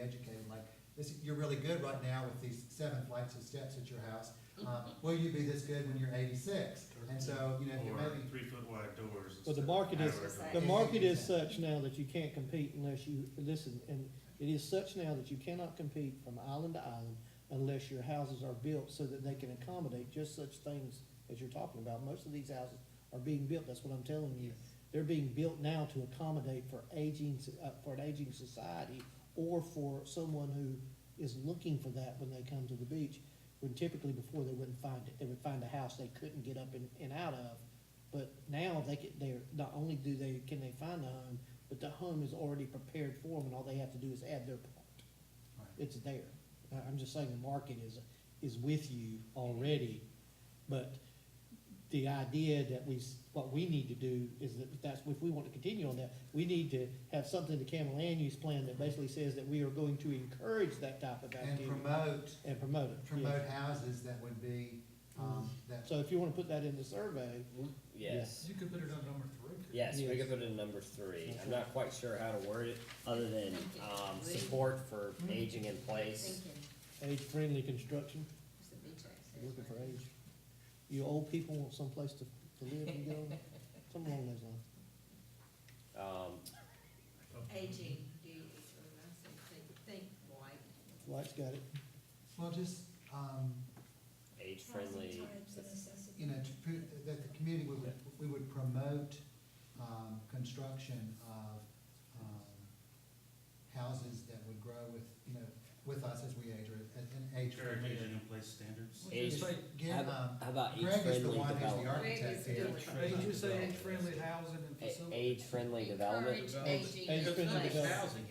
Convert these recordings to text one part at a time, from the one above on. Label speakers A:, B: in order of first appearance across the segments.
A: educated, like, this, you're really good right now with these seven flights of steps at your house. Um, will you be this good when you're eighty-six? And so, you know, you
B: Or
A: maybe,
B: three foot wide doors.
C: Well, the market is, the market is such now that you can't compete unless you, listen, and it is such now that you cannot compete from island to island unless your houses are built so that they can accommodate just such things as you're talking about. Most of these houses are being built, that's what I'm telling you. They're being built now to accommodate for aging, s- uh, for an aging society or for someone who is looking for that when they come to the beach. When typically before they wouldn't find it, they would find a house they couldn't get up and, and out of. But now they can, they're, not only do they, can they find a home, but the home is already prepared for them and all they have to do is add their part.
A: Right.
C: It's there. I, I'm just saying the market is, is with you already. But the idea that we, s- what we need to do is that, that's, if we want to continue on that, we need to have something to Cameron Land Use Plan that basically says that we are going to encourage that type of
A: and
C: activity
A: promote,
C: and promote it. yeah.
A: promote houses that would be, um, that,
C: So if you wanna put that in the survey,
D: Yes,
E: You could put it on number three. couldn't you?
D: yes, we
C: Yes.
D: could put it in number three.
C: That's
D: I'm not quite sure how to word it, other than, um, support for aging in place.
F: Thinking,
C: age-friendly construction.
F: it's the beach access.
C: You're Looking for
F: right?
C: age. You old people want someplace to, to live and go, something along those lines.
D: Um,
F: Aging, do you, is what I say, think, think white.
C: White's got it.
A: well, just, um,
D: age-friendly,
A: you know, to, pr- that the community would, we would promote, um, construction of, um, houses that would grow with, you know, with us as we age, or as an age.
B: Jerry, aging in place standards.
A: Would you
D: Age-
A: say, Get, um,
G: How about
A: Greg is the
G: age-friendly
A: one who's the
G: development?
F: Greg is
A: architect here.
F: doing it.
E: Hey, you say age-friendly housing and
G: A-
E: facilities.
G: Age-friendly development?
F: Encourage aging.
C: Age-
F: in
C: age-friendly
F: place.
C: development.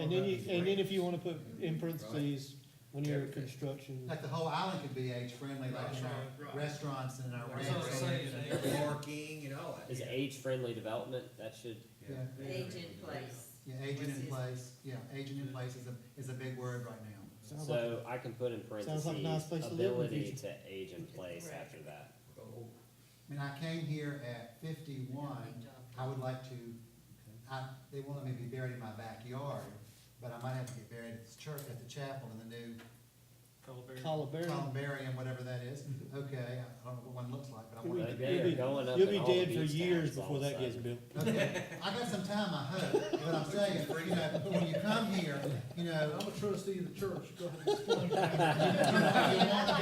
C: And then you, and then if you wanna put in parentheses, when you're at construction,
A: Like the whole island could be age friendly, like in
B: Right,
A: our
B: right.
A: restaurants and in our
E: That's what I'm
A: ranches.
E: saying, eh?
H: Parking and all
D: is age-frifriendly development, that should,
A: Yeah,
F: Age in place.
A: yeah, aging
F: What's
A: in
F: his-
A: place, yeah, aging in place is a, is a big word right now.
C: Sounds like-
D: so I can put in
C: Sounds like a nice
D: parentheses,
C: place to live in the
D: ability
C: future.
D: to age in place
F: Right.
D: after that.
A: I mean, I came here at fifty-one,
F: Good job.
A: I would like to, I, they wanted me to be buried in my backyard, but I might have to get buried at the church, at the chapel in the new
C: Columbarium.
A: columbarium, whatever that is.
G: Mm-hmm.
A: Okay, I don't know what one looks like, but I want to.
C: You'll
D: They-
C: be-
D: they are going up
C: You'll
D: in
C: be
D: all the
C: dead for
D: beach
C: years
D: towns all
C: before
D: of a
C: that gets
D: sudden.
C: built.
A: Okay, I got some time, I hope, but I'm saying, you know, when you come here, you know,
E: I'm a trustee of the church, go ahead and explain.
A: you want to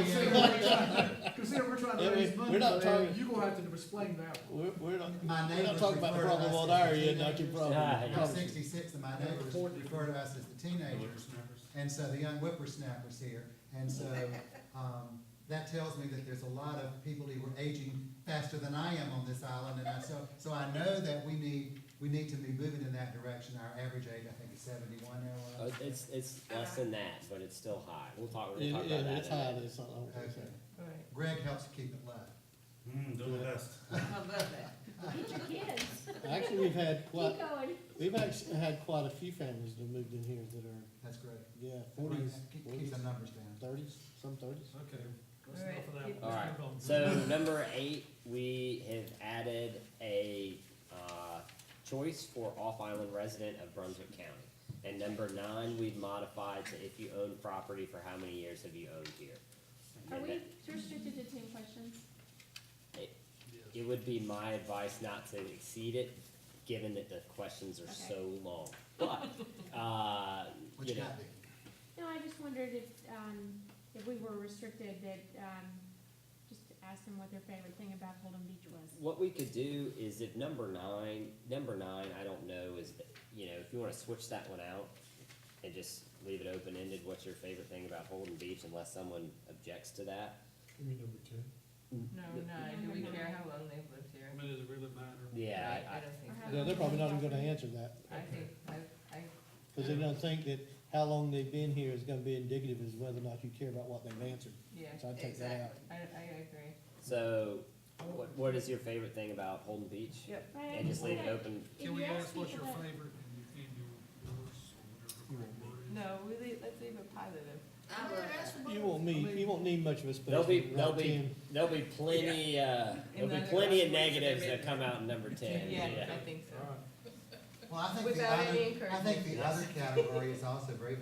A: be in-
E: Consider we're trying- Consider we're trying to
C: Yeah, we-
E: raise money,
C: we're not
E: man,
C: talking-
E: you gonna have to explain that one.
C: We're, we're not,
A: My
C: we're not
A: neighbors
C: talking about the
A: refer to
C: problem
A: us
C: on
A: as
C: our
A: the
C: end, not your
A: teenagers.
C: problem.
D: Yeah, yeah.
A: I'm
C: Promise you.
A: sixty-six and my neighbors refer to us as the teenagers.
B: Whippersnappers.
A: And so the young whippersnappers here, and so, um, that tells me that there's a lot of people who are aging faster than I am on this island, and I, so, so I know that we need, we need to be moving in that direction. Our average age, I think, is seventy-one now.
D: Uh, It's, it's less than that, but it's still high. We'll talk, we'll
C: Yeah,
D: talk about
C: yeah,
D: that.
C: it's
D: in a
C: high,
D: minute.
C: it's not, I don't think so.
A: Okay. Greg helps keep it low.
B: Mm, do the best.
F: Above that.
I: Get your kids,
C: Actually, we've had quite,
I: keep going.
C: we've actually had quite a few families that moved in here that are,
A: That's great.
C: yeah,
A: Keep-
C: forties,
A: Keep
C: forties,
A: the numbers down.
C: thirties, some thirties.
E: Okay. That's
F: All right.
E: enough of that.
F: Keep-
D: All right.
E: Let's move on.
D: So number eight, we have added a uh, choice for off-island resident of Brunswick County. And number nine, we've modified to if you own property, for how many years have you owned here?
I: Are
D: And
I: we restricted to ten questions?
D: that- It would be my advice not to exceed it, given that the questions are
I: Okay.
D: so long. But, uh,
A: What
D: you
A: you
D: know,
A: got, Vicky?
I: No, I just wondered if, um, if we were restricted that, um, just ask them what their favorite thing about Holden Beach was.
D: what we could do is if number nine, number nine, I don't know, is that, you know, if you wanna switch that one out and just leave it open-ended, what's your favorite thing about Holden Beach unless someone objects to that?
E: You mean number ten?
J: No, no, do we care how long they've lived here?
E: I mean, does it really matter?
D: Yeah,
J: I-
D: I,
J: I don't think
I: Or how
J: so.
C: Yeah, they're probably not even gonna answer that.
J: I think, I, I,
C: Cause they don't think that how long they've been here is gonna be indicative as whether or not you care about what they've answered.
J: yeah,
C: So I'd take that out.
J: exactly. I, I agree.
D: so, what, what is your favorite thing about Holden Beach?
J: Yep.
I: Right, I
D: And just leave it
I: wondered
D: open,
I: if
E: Can we
I: you
E: ask what's your
I: people that-
E: favorite and and your worst or whatever the word is?
J: No, we leave, let's leave it positive.
F: I love that.
C: You won't need, you won't need much of a space.
D: there'll be,
C: around
D: there'll be,
C: 10.
D: there'll be plenty, uh, there'll be
J: then
D: plenty of
J: the rest of
D: negatives
J: it-
D: that come out in number ten,
J: Yeah,
D: yeah.
J: I think so.
E: All right.
A: Well, I think the
J: Without
A: other,
J: any
A: I think the other category is also very